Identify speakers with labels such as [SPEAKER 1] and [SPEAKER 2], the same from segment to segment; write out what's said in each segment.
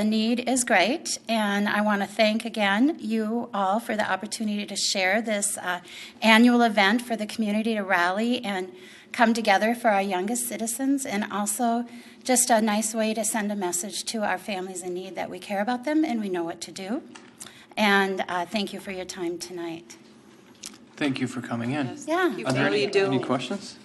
[SPEAKER 1] The need is great, and I want to thank again you all for the opportunity to share this uh, annual event for the community to rally and come together for our youngest citizens, and also just a nice way to send a message to our families in need that we care about them and we know what to do. And uh, thank you for your time tonight.
[SPEAKER 2] Thank you for coming in.
[SPEAKER 1] Yeah.
[SPEAKER 2] Are there any,
[SPEAKER 3] Thank you.
[SPEAKER 2] any questions?
[SPEAKER 3] Yeah.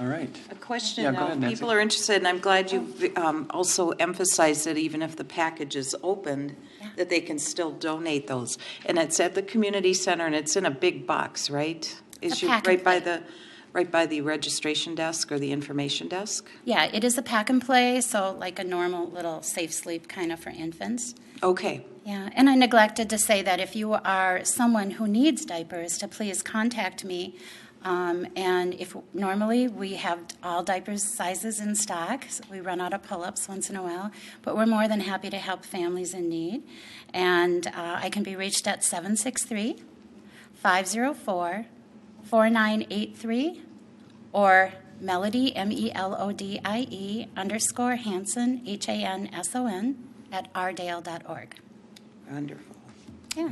[SPEAKER 2] All right.
[SPEAKER 3] A
[SPEAKER 2] Yeah,
[SPEAKER 3] question,
[SPEAKER 2] go ahead,
[SPEAKER 3] though.
[SPEAKER 2] Nancy.
[SPEAKER 3] People are interested, and I'm glad you um, also emphasized that even if the package is opened,
[SPEAKER 1] Yeah.
[SPEAKER 3] that they can still donate those. And it's at the community center, and it's in a big box, right? Is
[SPEAKER 1] A
[SPEAKER 3] you
[SPEAKER 1] pack
[SPEAKER 3] Right
[SPEAKER 1] and
[SPEAKER 3] by
[SPEAKER 1] play.
[SPEAKER 3] the, right by the registration desk or the information desk?
[SPEAKER 1] Yeah, it is a pack and play, so like a normal little safe sleep kind of for infants.
[SPEAKER 3] Okay,
[SPEAKER 1] Yeah, and I neglected to say that if you are someone who needs diapers, to please contact me. Um, and if normally we have all diapers sizes in stock, so we run out of pull-ups once in a while, but we're more than happy to help families in need. And uh, I can be reached at 763 504 4983 or Melody, M E L O D I E underscore Hanson, H A N S O N, at rdale.org.
[SPEAKER 3] wonderful.
[SPEAKER 1] Yeah.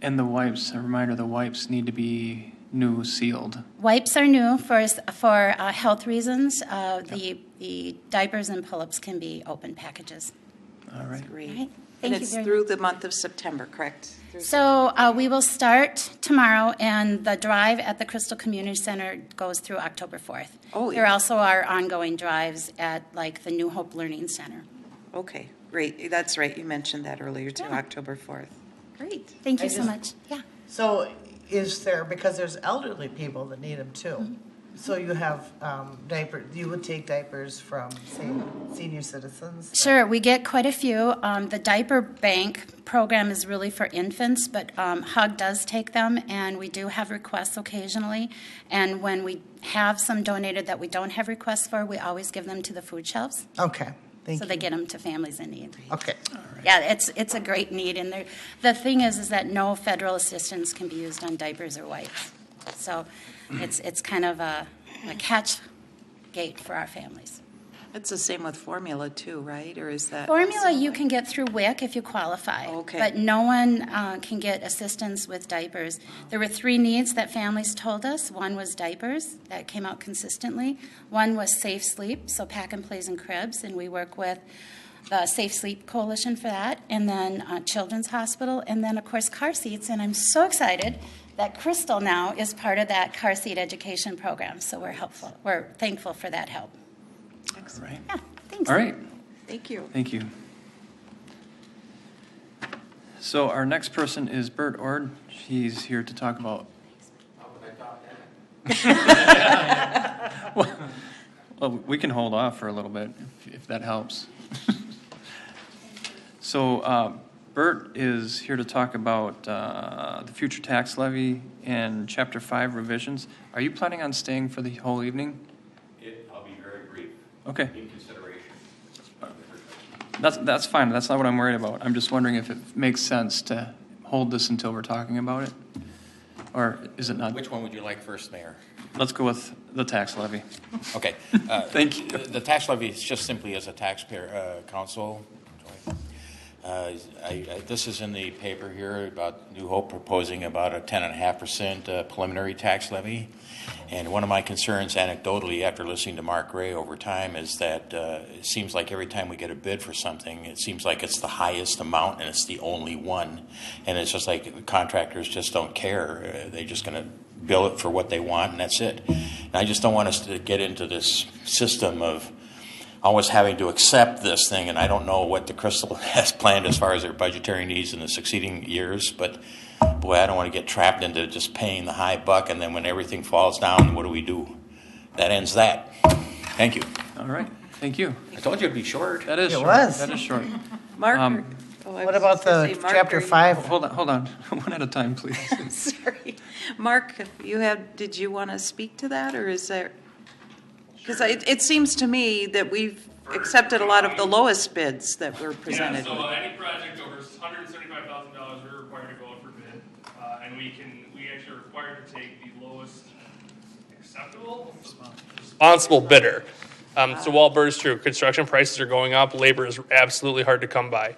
[SPEAKER 2] And the wipes, a reminder, the wipes need to be new sealed.
[SPEAKER 1] Wipes are new for, for uh, health reasons. Uh, the, the diapers and pull-ups can be open packages.
[SPEAKER 2] All right.
[SPEAKER 3] Great.
[SPEAKER 1] All right. Thank
[SPEAKER 3] Mm-hmm. And
[SPEAKER 1] you
[SPEAKER 3] it's
[SPEAKER 1] very
[SPEAKER 3] through the month of September, correct? Through-
[SPEAKER 1] So uh, we will start tomorrow, and the drive at the Crystal Community Center goes through October 4th.
[SPEAKER 3] Oh,
[SPEAKER 1] There
[SPEAKER 3] yeah.
[SPEAKER 1] also are ongoing drives at, like, the New Hope Learning Center.
[SPEAKER 3] Okay, great. That's right, you mentioned that earlier, too,
[SPEAKER 1] Yeah.
[SPEAKER 3] October 4th.
[SPEAKER 1] Great. Thank
[SPEAKER 4] I
[SPEAKER 1] you so
[SPEAKER 4] just-
[SPEAKER 1] much. Yeah.
[SPEAKER 4] So is there, because there's elderly people that need them
[SPEAKER 1] Mm-hmm.
[SPEAKER 4] too. So you have um, diaper, you would take diapers from, say, senior citizens?
[SPEAKER 1] Sure, we get quite a few. Um, the diaper bank program is really for infants, but um, HUG does take them, and we do have requests occasionally. And when we have some donated that we don't have requests for, we always give them to the food shelves,
[SPEAKER 4] Okay, thank
[SPEAKER 1] so they
[SPEAKER 4] you.
[SPEAKER 1] get them to families in need.
[SPEAKER 4] Okay,
[SPEAKER 1] Yeah, it's it's a great need, and there, the thing is, is that no federal assistance can be used on diapers or wipes. So, it's it's kind of a, a catch gate for our families.
[SPEAKER 3] It's the same with formula, too, right? Or is that?
[SPEAKER 1] Formula you can get through WIC if you qualify.
[SPEAKER 3] Okay.
[SPEAKER 1] But no one uh, can get assistance with diapers. There were three needs that families told us. One was diapers, that came out consistently. One was safe sleep, so pack and plays and cribs, and we work with the Safe Sleep Coalition for that, and then uh, Children's Hospital, and then, of course, car seats. And I'm so excited that Crystal now is part of that car seat education program, so we're helpful, we're thankful for that help.
[SPEAKER 2] All right.
[SPEAKER 1] Yeah, thanks.
[SPEAKER 2] All right.
[SPEAKER 3] Thank you.
[SPEAKER 2] Thank you. So our next person is Bert Ord. He's here to talk about. Well, well, we can hold off for a little bit if, if that helps. So uh, Bert is here to talk about uh, the future tax levy and Chapter 5 revisions. Are you planning on staying for the whole evening?
[SPEAKER 5] It, I'll be very brief,
[SPEAKER 2] Okay.
[SPEAKER 5] in consideration.
[SPEAKER 2] That's, that's fine, that's not what I'm worried about. I'm just wondering if it makes sense to hold this until we're talking about it? Or is it not?
[SPEAKER 5] Which one would you like first, Mayor?
[SPEAKER 2] Let's go with the tax levy.
[SPEAKER 5] Okay. uh,
[SPEAKER 2] Thank you.
[SPEAKER 5] The the tax levy is just simply as a taxpayer, uh, council. Uh, I- I- This is in the paper here about New Hope proposing about a ten and a half percent uh, preliminary tax levy. And one of my concerns anecdotally, after listening to Mark Gray over time, is that uh, it seems like every time we get a bid for something, it seems like it's the highest amount and it's the only one. And it's just like contractors just don't care. Uh, They're just going to bill it for what they want, and that's it. And I just don't want us to get into this system of always having to accept this thing, and I don't know what the Crystal has planned as far as their budgetary needs in the succeeding years, but boy, I don't want to get trapped into just paying the high buck, and then when everything falls down, what do we do? That ends that. Thank you.
[SPEAKER 2] All right, thank you.
[SPEAKER 5] I told you it'd be short.
[SPEAKER 2] That is
[SPEAKER 4] It
[SPEAKER 2] short.
[SPEAKER 4] was.
[SPEAKER 2] That is short.
[SPEAKER 3] Marker.
[SPEAKER 2] Um,
[SPEAKER 3] Oh, I
[SPEAKER 4] what
[SPEAKER 3] was
[SPEAKER 4] about
[SPEAKER 3] just gonna
[SPEAKER 4] the
[SPEAKER 3] say
[SPEAKER 4] chapter
[SPEAKER 3] marker.
[SPEAKER 4] five?
[SPEAKER 2] Hold on, hold on, one at a time, please.
[SPEAKER 3] Sorry. Mark, you had, did you want to speak to that, or is there? Because it, it seems to me that we've accepted a lot of the lowest bids that were
[SPEAKER 6] Yeah,
[SPEAKER 3] presented.
[SPEAKER 6] so uh, any project over hundred and seventy-five thousand dollars, we're required to go out for bid, uh, and we can, we actually are required to take the lowest acceptable. Responsible bidder. Uh, Um, so while Bert's true, construction prices are going up, labor is absolutely hard to come by.